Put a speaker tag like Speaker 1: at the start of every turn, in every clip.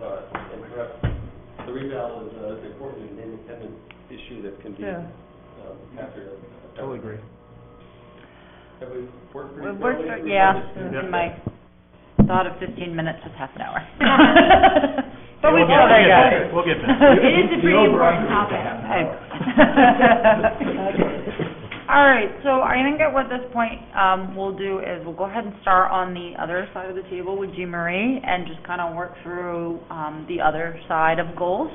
Speaker 1: sorry, interrupt. The rebound is, uh, is important, an independent issue that can be,
Speaker 2: Yeah.
Speaker 1: um, after.
Speaker 3: Totally agree.
Speaker 1: Have we worked pretty
Speaker 2: We've
Speaker 1: thoroughly?
Speaker 2: worked
Speaker 1: through
Speaker 2: for- yeah,
Speaker 1: this?
Speaker 2: this
Speaker 3: is
Speaker 4: my thought of fifteen minutes was half an hour.
Speaker 2: But we
Speaker 3: We'll get-
Speaker 2: still
Speaker 3: we'll get
Speaker 2: got
Speaker 3: there.
Speaker 2: it.
Speaker 3: We'll get
Speaker 4: It is a
Speaker 3: there.
Speaker 4: pretty important topic.
Speaker 2: All right, so I think at what this point, um, we'll do is we'll go ahead and start on the other side of the table with Jean Marie and just kind of work through, um, the other side of goals.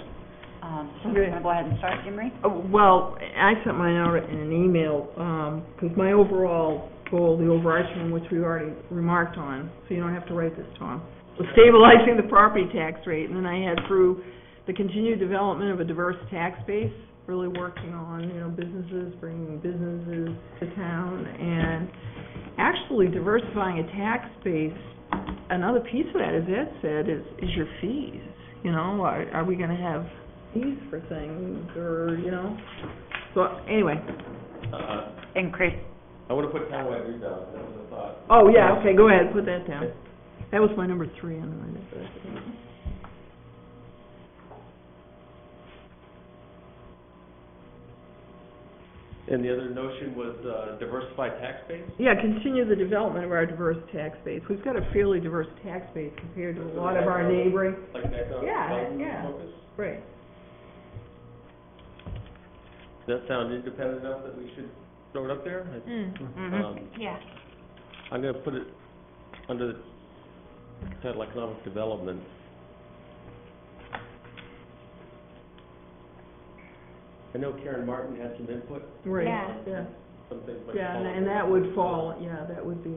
Speaker 2: Um, so we're
Speaker 5: Okay.
Speaker 2: gonna go ahead and start, Jean Marie?
Speaker 5: Uh, Well, I sent mine out in an email, because my overall goal, the overarching one, which we already remarked on, so you don't have to write this, Tom, was stabilizing the property tax rate, and then I had through the continued development of a diverse tax base, really working on, you know, businesses, bringing businesses to town, and actually diversifying a tax base, another piece of that, as Ed said, is, is your fees, you know, are, are we gonna have fees for things, or, you know, so, anyway,
Speaker 1: Uh,
Speaker 2: Increase,
Speaker 1: I wanna put townwide rebound, that was a thought.
Speaker 5: oh, yeah, okay, go ahead, put that down. That was my number three on my list.
Speaker 1: And the other notion was, uh, diversified tax base?
Speaker 5: Yeah, continue the development of our diverse tax base, we've got a fairly diverse tax base compared to a lot of our neighboring,
Speaker 1: Like that, uh,
Speaker 5: Yeah,
Speaker 1: development
Speaker 5: yeah.
Speaker 1: focus?
Speaker 5: right,
Speaker 1: Does that sound independent enough that we should throw it up there? I-
Speaker 5: Mm-hmm.
Speaker 2: mhm,
Speaker 1: Um,
Speaker 4: Mm, Yeah.
Speaker 1: I'm gonna put it under the title Economic Development. I know Karen Martin had some input,
Speaker 5: right.
Speaker 4: Yeah.
Speaker 5: Yeah,
Speaker 1: some things might
Speaker 5: yeah,
Speaker 1: fall
Speaker 5: and- and that would fall, yeah, that would be,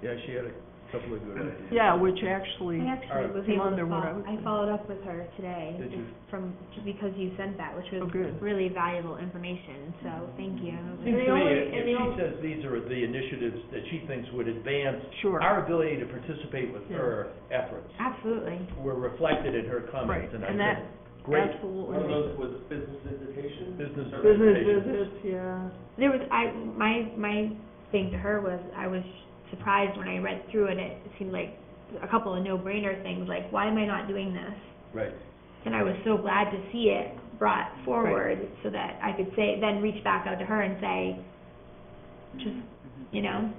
Speaker 3: Yeah, she had a couple of good ideas.
Speaker 5: yeah, which actually,
Speaker 4: I actually was
Speaker 5: Came
Speaker 4: able
Speaker 5: under
Speaker 4: to
Speaker 5: what I
Speaker 4: follow,
Speaker 5: was
Speaker 4: I
Speaker 5: thinking.
Speaker 4: followed up with her today.
Speaker 3: Did you?
Speaker 4: From, because you sent that, which
Speaker 5: Oh,
Speaker 4: was
Speaker 5: good.
Speaker 4: really valuable information, so thank you. And
Speaker 3: Seems
Speaker 4: the
Speaker 3: to me,
Speaker 4: only-
Speaker 3: if
Speaker 4: and
Speaker 3: if
Speaker 4: the
Speaker 3: she
Speaker 4: only-
Speaker 3: says these are the initiatives that she thinks would advance
Speaker 5: sure.
Speaker 3: our ability to participate with
Speaker 5: Yeah.
Speaker 3: her efforts,
Speaker 4: Absolutely.
Speaker 3: were reflected in her
Speaker 5: Right,
Speaker 3: comments, and I
Speaker 5: and that
Speaker 3: think, great
Speaker 1: One of
Speaker 5: absolutely.
Speaker 1: those was business visitation.
Speaker 3: business
Speaker 5: Business
Speaker 3: presentations.
Speaker 5: visits, yeah.
Speaker 4: There was, I, my, my thing to her was, I was surprised when I read through it, it seemed like a couple of no-brainer things, like, why am I not doing this?
Speaker 3: Right.
Speaker 4: And I was so glad to see it brought forward so that I could say, then reach back out to her and say, just,
Speaker 5: Mm-hmm.
Speaker 4: you know,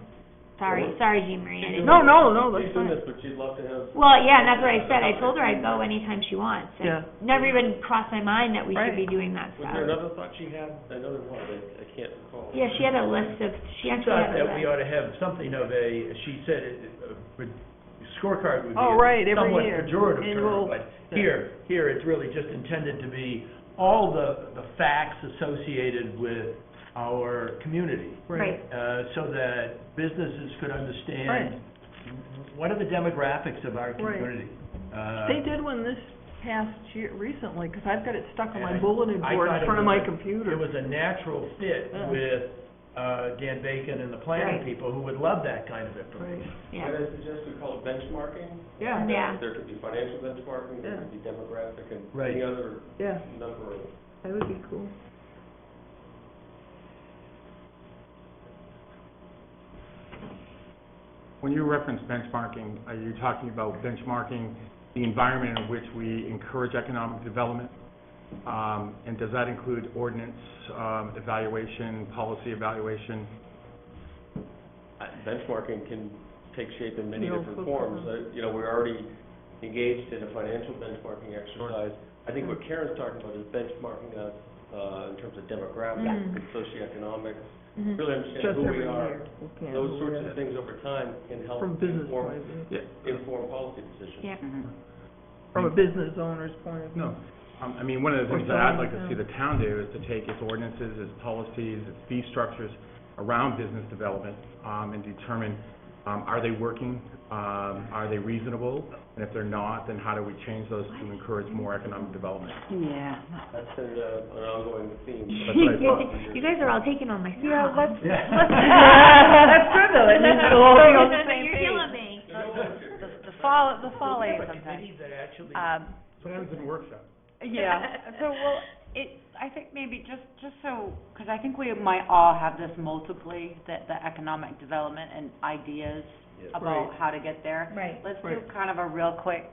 Speaker 4: sorry,
Speaker 1: Well,
Speaker 4: sorry, Jean Marie. I didn't-
Speaker 5: No, no, no, that's
Speaker 1: She's doing
Speaker 5: fine.
Speaker 1: this, but she'd love to have.
Speaker 4: Well, yeah, and that's what I said. I told her I'd go anytime she wants. It
Speaker 5: Yeah.
Speaker 4: Never even crossed my mind that we should be
Speaker 5: Right.
Speaker 4: doing that
Speaker 1: Was there
Speaker 4: stuff.
Speaker 1: another thought she had? I know there was, I, I can't recall.
Speaker 4: Yeah, she had a list of, she
Speaker 3: She
Speaker 4: actually
Speaker 3: thought
Speaker 4: had a
Speaker 3: that we
Speaker 4: list.
Speaker 3: ought to have something of a, she said, it- a re- scorecard would be
Speaker 5: Oh, right,
Speaker 3: a
Speaker 5: every
Speaker 3: somewhat
Speaker 5: year,
Speaker 3: pejorative
Speaker 5: annual-
Speaker 3: term, but here, here, it's really just intended to be all the, the facts associated with our community,
Speaker 4: Right,
Speaker 3: uh, so that businesses could
Speaker 5: Right.
Speaker 3: understand what are the demographics of our community. Uh,
Speaker 5: They did one this past year, recently, because I've got it stuck on my
Speaker 3: And I-
Speaker 5: bulletin
Speaker 3: I
Speaker 5: board
Speaker 3: thought
Speaker 5: in
Speaker 3: it
Speaker 5: front of
Speaker 3: was
Speaker 5: my
Speaker 3: a- It
Speaker 5: computer.
Speaker 3: was a natural fit
Speaker 5: Yeah.
Speaker 3: with uh, Dan Bacon and the
Speaker 5: Right.
Speaker 3: planning people, who would love that kind of information.
Speaker 5: Right,
Speaker 4: yeah.
Speaker 1: Can I suggest we call it benchmarking?
Speaker 5: yeah,
Speaker 4: Yeah.
Speaker 1: There could be financial benchmarking, there could be demographic, and
Speaker 3: Right.
Speaker 1: any other
Speaker 5: yeah,
Speaker 1: number of
Speaker 5: that would be cool.
Speaker 6: When you reference benchmarking, are you talking about benchmarking the environment in which we encourage economic development? Um, And does that include ordinance um, evaluation, policy evaluation?
Speaker 1: Uh, benchmarking can take shape in many
Speaker 5: No,
Speaker 1: different
Speaker 5: for
Speaker 1: forms.
Speaker 5: sure.
Speaker 1: Uh, You know, we're already engaged in a financial benchmarking exercise. I think what Karen's talking about is benchmarking us uh, in terms of demographics
Speaker 5: Yeah.
Speaker 1: and socioeconomics,
Speaker 4: Mhm.
Speaker 1: really
Speaker 5: Mm-hmm. Just
Speaker 1: understanding who
Speaker 5: every
Speaker 1: we
Speaker 5: year.
Speaker 1: are.
Speaker 5: we can.
Speaker 1: Those sorts of things over time can help
Speaker 5: From business point
Speaker 1: inform,
Speaker 5: of view,
Speaker 6: Yeah,
Speaker 1: inform policy decisions.
Speaker 4: Yeah.
Speaker 2: mhm.
Speaker 5: from a business owner's point of view.
Speaker 6: No. Um, I mean, one of the
Speaker 5: Or
Speaker 6: things that I'd
Speaker 5: zoning,
Speaker 6: like to
Speaker 5: yeah.
Speaker 6: see the town do is to take its ordinances, its policies, its fee structures around business development um, and determine, um, are they working? Um, Are they reasonable? And if they're not, then how do we change those to encourage more economic development?
Speaker 2: Yeah.
Speaker 1: That's been uh, an ongoing theme.
Speaker 6: That's what I thought.
Speaker 4: You guys are all taking all my stuff.
Speaker 2: Yeah, let's, let's.
Speaker 3: Yeah.
Speaker 2: That's true though, it means we'll all be on the same
Speaker 4: You're
Speaker 2: page.
Speaker 4: killing me.
Speaker 2: The, the fall, the fall
Speaker 3: We
Speaker 2: aid
Speaker 3: have a
Speaker 2: sometimes.
Speaker 3: committee that actually
Speaker 2: Um,
Speaker 6: Plans and workshops.
Speaker 2: Yeah, so, well, it, I think maybe just, just so, because I think we might all have this multiply, that the economic development and ideas
Speaker 3: Yes.
Speaker 2: about how to get there.
Speaker 4: Right.
Speaker 2: Let's do
Speaker 5: Right.
Speaker 2: kind of a real quick